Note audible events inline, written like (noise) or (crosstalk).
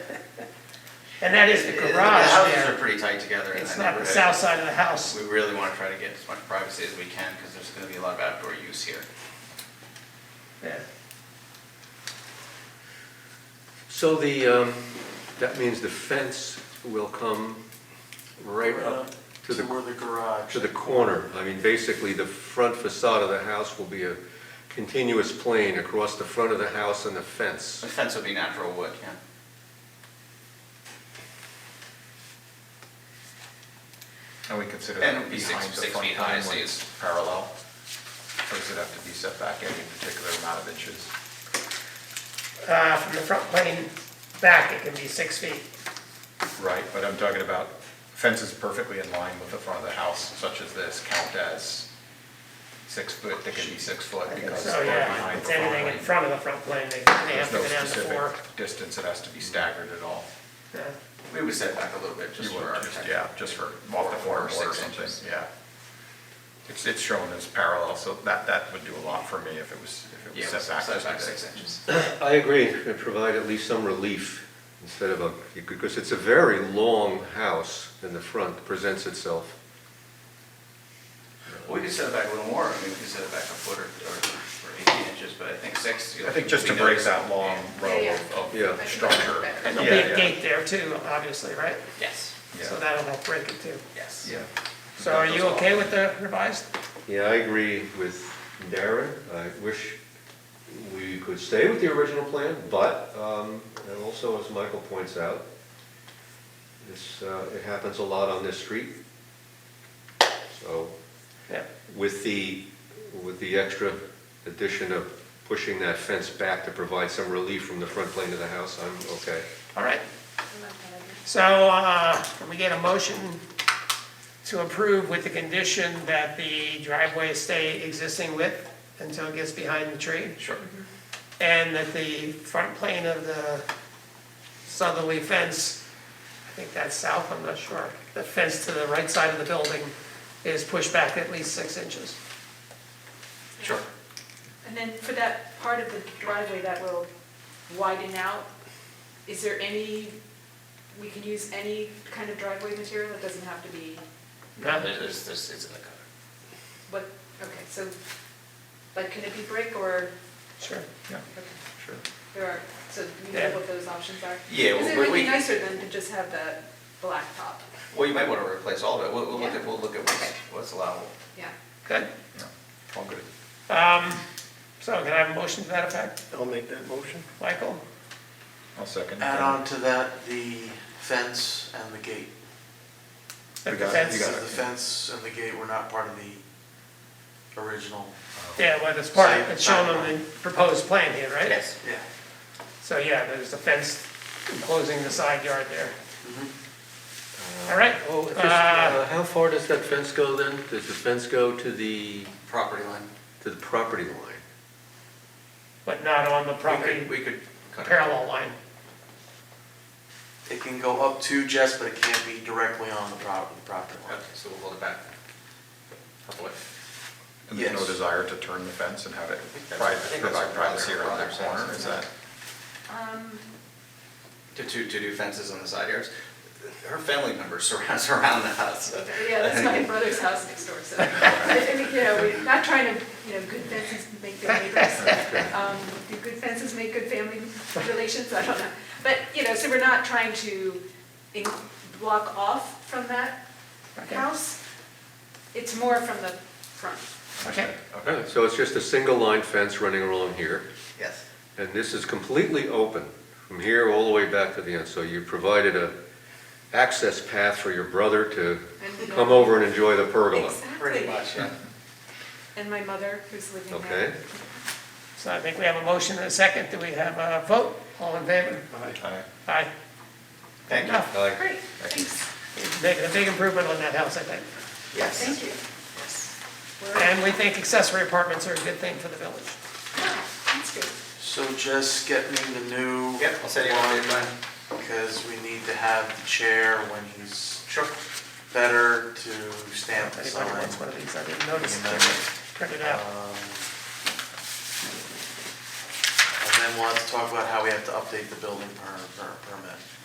And that is the The garage houses are there. pretty tight together in It's that not the neighborhood. south side of the house. We really wanna try to get as much privacy as we can, because there's gonna be a lot of outdoor use here. Yeah. So the, um, that means the fence will come right up to To the, where the garage. to the corner. I mean, basically, the front facade of the house will be a continuous plane across the front of the house and the fence. The fence would be natural wood, yeah. And we consider And that it'd be six- behind the six front feet high, line so when it's- it's parallel? Or does it have to be set back any particular amount of inches? Uh, from the front plane back, it can be six feet. Right, but I'm talking about fences perfectly in line with the front of the house, such as this, count as six foot, they can be six foot I think because So, they're Oh, yeah, behind the it's front anything in line. front of the front plane, they, they have There's to no go down to four. specific distance, it has to be staggered at all. Yeah. We would set back a little bit, You just for would just, architecture. yeah, just for off the Four or corner or six something, inches. yeah. It's, it's shown as parallel, so that, that would do a lot for me if it was, if it Yeah, was set back. set back as it is. six inches. I agree, it provide at least some relief instead of a, because it's a very long house in the front, presents itself. Well, We could set it back a little more, I mean, we could set it back a foot or, or or eighteen inches, but I think six. you know, I think just to we break notice- that long row Yeah, of- Oh, yeah. of structure. Yeah. And there'll Yeah, be a yeah. gate there too, obviously, right? Yes, So Yeah. that'll help break it too. yes. Yeah. So are you okay with the revised? Yeah, I agree with Darren. I wish we could stay with the original plan, but, um, and also as Michael points out, this, uh, it happens a lot on this street. So Yeah. with the, with the extra addition of pushing that fence back to provide some relief from the front plane of the house, I'm okay. All right. So, uh, can we get a motion to approve with the condition that the driveway stay existing width until it gets behind the tree? Sure. mm-hmm. And that the front plane of the southerly fence, I think that's south, I'm not sure, the fence to the right side of the building is pushed back at least six inches. Sure. And then for that part of the driveway that will widen out, is there any, we can use any kind of driveway material? It doesn't have to be, No? There's, there's, there's- it's in the code. what, okay, so, like, can it be brick or, Sure. Yeah, okay, sure. there are, so do you Yeah. know what those options are? Yeah, Because it we- would be we- nicer than to just have that black top, Well, you might wanna replace all of it, we'll, we'll look Yeah. at, we'll look at what's, Okay. what's allowable. yeah. Good. Yeah, All good. Um, so can I have a motion to that effect? I'll make that motion. Michael? I'll second. Add um, on to that the fence and the gate. That You the got it, fence- you got So it. the fence and the gate were not part of the original, Yeah, well, it's part, Same. it's shown on the proposed plan here, right? yeah. So, yeah, there's a fence enclosing the side yard there. All right, Oh, just, uh, uh, how far does that fence go then? Does the fence go to the, Property line. to the property line? but not on the We could, property we could. cut it. parallel line. It can go up to Jess, but it can't be directly on the prop- the property line. Okay, so we'll hold it back. Couple of- And there's no Yes. desire to turn the fence and have it that's- I private, think that's provide what privacy Roger- around that Roger says, corner, is isn't it? that? Um, To, to, to do fences on the side yards. Her family members surround, (laughs) surround the house. so- (laughs) Yeah, that's my brother's house next door, so, I I mean, you know, we're not trying to, you know, good fences make good neighbors. Um, Do good fences make good family relations? I don't know. But, you know, so we're not trying to in- block off from that Okay. house. It's more from the front. Okay, Okay, So it's just a single line fence running along here? Yes. And this is completely open from here all the way back to the end, so you provided a access path for your brother to And we come don't- over and enjoy the pergola. Pretty Exactly. much, yeah. And my mother, who's living there. Okay? so I think we have a motion and a second. Do we have a vote? All in favor? Aye. Aye. Thank you. Enough. Like, Great, thanks, It's Making a big improvement on that house, I think. Yes. thank you. We're- And we think accessory apartments are a good thing for the village. Yeah, That's good. So Jess, get me the new. Yep, I'll send you all the plan. Because we need to have the chair when he's Sure. better to stamp the If sign. anybody wants one of these, I didn't notice. You know. Print it Um, out. And then we'll have to talk about how we have to update the building per, per, permit.